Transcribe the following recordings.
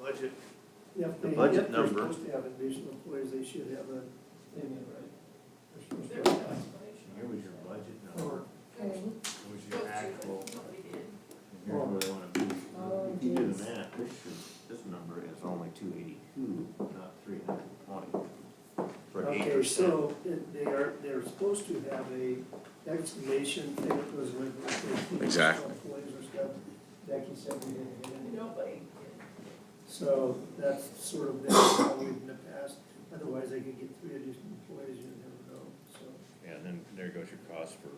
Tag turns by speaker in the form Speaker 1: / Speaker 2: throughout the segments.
Speaker 1: budget,
Speaker 2: If
Speaker 1: The
Speaker 2: they-
Speaker 1: budget
Speaker 2: if
Speaker 1: number.
Speaker 2: They're supposed to have additional employees, they should have a, they mean, right? They're supposed to
Speaker 3: There
Speaker 2: have
Speaker 3: was no
Speaker 2: that.
Speaker 3: explanation.
Speaker 1: here was your budget number,
Speaker 2: Or-
Speaker 4: Okay,
Speaker 1: here was
Speaker 3: Those two,
Speaker 1: your
Speaker 3: but
Speaker 1: actual,
Speaker 3: Nobody did.
Speaker 1: and here's where they wanna be.
Speaker 4: Oh,
Speaker 1: If you do the math, this should, this number is only two eighty-two, not three hundred and twenty. For eight
Speaker 2: Okay,
Speaker 1: percent.
Speaker 2: so it- they are, they're supposed to have a explanation thing that goes with it.
Speaker 5: Exactly.
Speaker 2: Employees or stuff, Becky said we didn't get any.
Speaker 3: Nobody did.
Speaker 2: So that's sort of been how we've in the past, otherwise they could get three additional employees, you never know, so.
Speaker 6: Yeah, and then there goes your cost for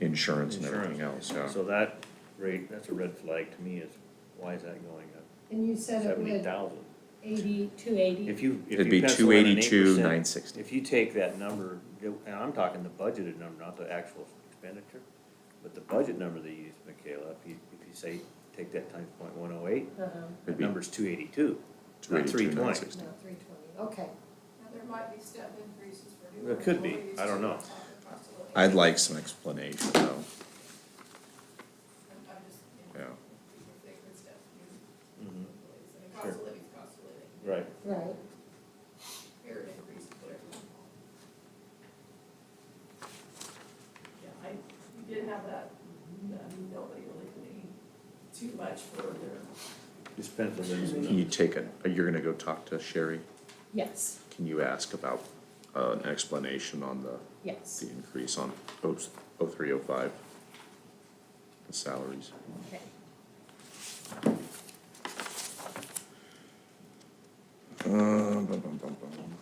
Speaker 5: Insurance and everything else,
Speaker 6: insurance.
Speaker 5: yeah.
Speaker 6: So that rate, that's a red flag to me is, why is that going up
Speaker 4: and you said it
Speaker 6: seventy
Speaker 4: would
Speaker 6: thousand?
Speaker 4: eighty, two eighty,
Speaker 6: If you, if
Speaker 5: It'd
Speaker 6: you
Speaker 5: be
Speaker 6: pencil
Speaker 5: two
Speaker 6: in an
Speaker 5: eighty-two,
Speaker 6: 8%,
Speaker 5: nine sixty.
Speaker 6: If you take that number, and I'm talking the budgeted number, not the actual expenditure, but the budget number they used, Michaela, if you, if you say, take that times point one oh eight,
Speaker 4: uh-huh,
Speaker 6: that
Speaker 5: It'd be
Speaker 6: number's two eighty-two,
Speaker 5: two
Speaker 6: not three
Speaker 5: eighty-two, nine
Speaker 6: twenty.
Speaker 5: sixty.
Speaker 4: no, three twenty, okay.
Speaker 3: Now, there might be step increases for new.
Speaker 6: There could be.
Speaker 3: employees,
Speaker 6: I don't know.
Speaker 3: too. It's possible.
Speaker 5: I'd like some explanation though,
Speaker 3: I'm- I'm just, you
Speaker 5: yeah.
Speaker 3: know, people think it's step new
Speaker 6: Mhm.
Speaker 3: employees. I mean, cost of living's cost of
Speaker 6: Right.
Speaker 3: living.
Speaker 4: Right,
Speaker 3: Merit increase, whatever. you want. Yeah, I, we did have that, that nobody really paid too much for their
Speaker 6: Just pencil in some
Speaker 5: Can you
Speaker 6: numbers.
Speaker 5: take a, you're gonna go talk to Sherry?
Speaker 4: yes,
Speaker 5: Can you ask about, uh, an explanation on the,
Speaker 4: yes,
Speaker 5: the increase on oh, oh three, oh five? The salaries.
Speaker 4: okay.
Speaker 5: Uh, bum, bum, bum, bum.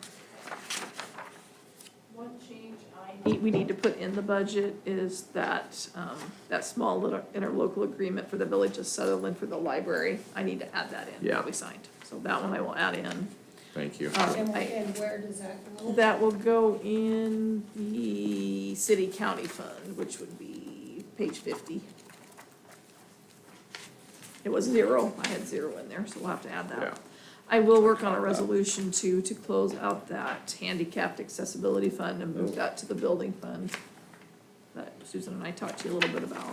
Speaker 3: One change I. We need to put in the budget is that, um, that small little interlocal agreement for the village of Sutherland for the library. I need to add that in,
Speaker 5: Yeah.
Speaker 3: that we signed. So that one I will add in.
Speaker 5: Thank you.
Speaker 4: And,
Speaker 3: Um, I-
Speaker 4: and where does that go?
Speaker 3: That will go in the city county fund, which would be page fifty. It was zero, I had zero in there, so we'll have to add
Speaker 5: Yeah.
Speaker 3: that. I will work on a resolution to, to close out that handicapped accessibility fund and move that to the building fund. That Susan and I talked to you a little bit about.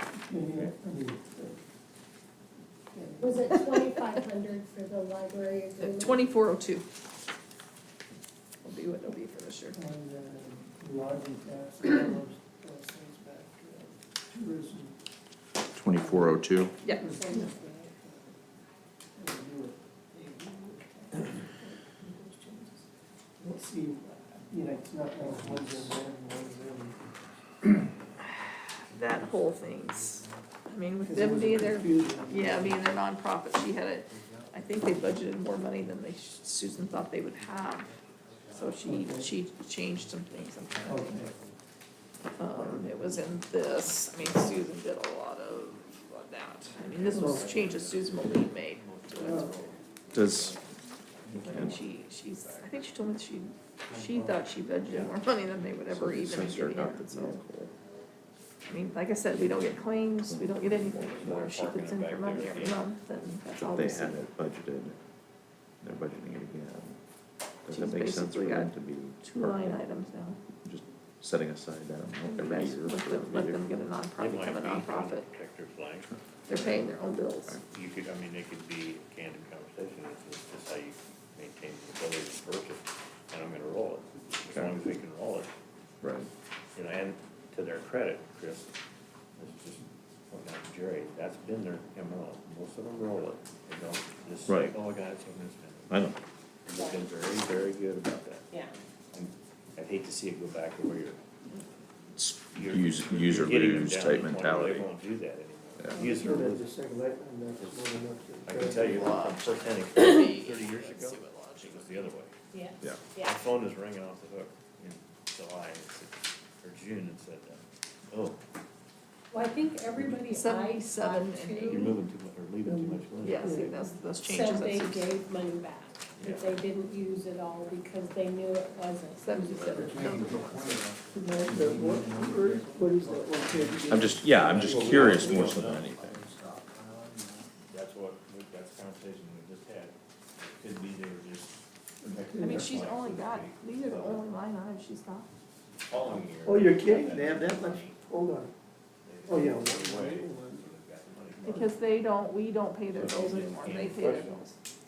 Speaker 4: Was it twenty-five hundred for the library agreement?
Speaker 3: Twenty-four oh two. Will be what it'll be for this year.
Speaker 2: And, uh, lodging tax, all those, those things back, uh, tourism.
Speaker 5: Twenty-four oh two,
Speaker 3: Yeah.
Speaker 2: uh, Let's see, you know, it's not like one's in there and one's in.
Speaker 3: That whole thing's, I mean, with
Speaker 2: 'cause it
Speaker 3: them
Speaker 2: was
Speaker 3: being there,
Speaker 2: confusing.
Speaker 3: yeah, being their nonprofit, she had it, I think they budgeted more money than they, Susan thought they would have. So she, she changed some things, I'm trying to think.
Speaker 2: Okay.
Speaker 3: Um, it was in this, I mean, Susan did a lot of that. I mean, this was changes Susan Malik made.
Speaker 5: does,
Speaker 3: I mean, she, she's, I think she told me that she, she thought she budgeted more money than they would ever even
Speaker 5: since you're
Speaker 3: give
Speaker 5: not
Speaker 3: out, so. I mean, like I said, we don't get claims, we don't get anything anymore. She puts in her money every month and that's all
Speaker 5: they
Speaker 3: we
Speaker 5: had
Speaker 3: see.
Speaker 5: it budgeted, they're budgeting it again. Does
Speaker 3: She's
Speaker 5: that make sense for
Speaker 3: basically
Speaker 5: them
Speaker 3: got
Speaker 5: to be?
Speaker 3: Two line items now.
Speaker 5: Just setting aside that amount every
Speaker 3: Let
Speaker 5: year. for
Speaker 3: them, let them get a
Speaker 6: It
Speaker 3: nonprofit,
Speaker 6: might
Speaker 3: become a
Speaker 6: be
Speaker 3: nonprofit.
Speaker 6: Protector flag.
Speaker 3: They're paying their own bills.
Speaker 6: You could, I mean, it could be a candid conversation, it's just, it's how you maintain the ability to purchase, and I'm gonna roll it, as long as we can roll it.
Speaker 5: Right,
Speaker 6: You know, and to their credit, Chris, let's just point out to Jerry, that's been their MO, most of them roll it, they don't just say,
Speaker 5: Right.
Speaker 6: oh, I got it, so I'm gonna spend it.
Speaker 5: I know.
Speaker 6: And They've been very, very good about that,
Speaker 4: Yeah.
Speaker 6: and I'd hate to see it go back to where you're.
Speaker 5: It's
Speaker 6: you're-
Speaker 5: use,
Speaker 6: you're
Speaker 5: user
Speaker 6: getting them
Speaker 5: lose
Speaker 6: down to
Speaker 5: type
Speaker 6: the point where They
Speaker 5: mentality.
Speaker 6: won't do that
Speaker 5: Yeah.
Speaker 6: anymore. User
Speaker 2: Sort of
Speaker 6: lose,
Speaker 2: just like that, and that's one enough
Speaker 6: I
Speaker 2: to-
Speaker 6: can tell you from firsthand experience, thirty years ago, it was the other way.
Speaker 4: Yeah.
Speaker 5: Yeah.
Speaker 6: My phone is ringing off the hook in July, it said- or June, it said, uh, oh,
Speaker 4: Well, I think everybody I
Speaker 3: Seventy-seven
Speaker 4: talked
Speaker 3: and
Speaker 6: you're
Speaker 4: to
Speaker 6: moving too much, or leaving too much money.
Speaker 3: Yeah, see, those, those
Speaker 4: said
Speaker 3: changes.
Speaker 4: they
Speaker 3: that's-
Speaker 4: gave money back, that they didn't use it all because they knew it wasn't.
Speaker 3: Seventy-seven, those are the ones.
Speaker 2: No, the what, what is that one page again?
Speaker 5: I'm just, yeah, I'm just curious more so than anything.
Speaker 6: That's what, we- that's the conversation we just had, It could be they were just.
Speaker 3: I mean, she's only got, these are the only line items she's got.
Speaker 6: Following year.
Speaker 2: Oh, you're kidding, they have that much, hold on, oh, yeah.
Speaker 6: Way,
Speaker 2: one-
Speaker 6: so they've got the money.
Speaker 3: Because they don't, we don't pay their bills anymore, they pay their bills.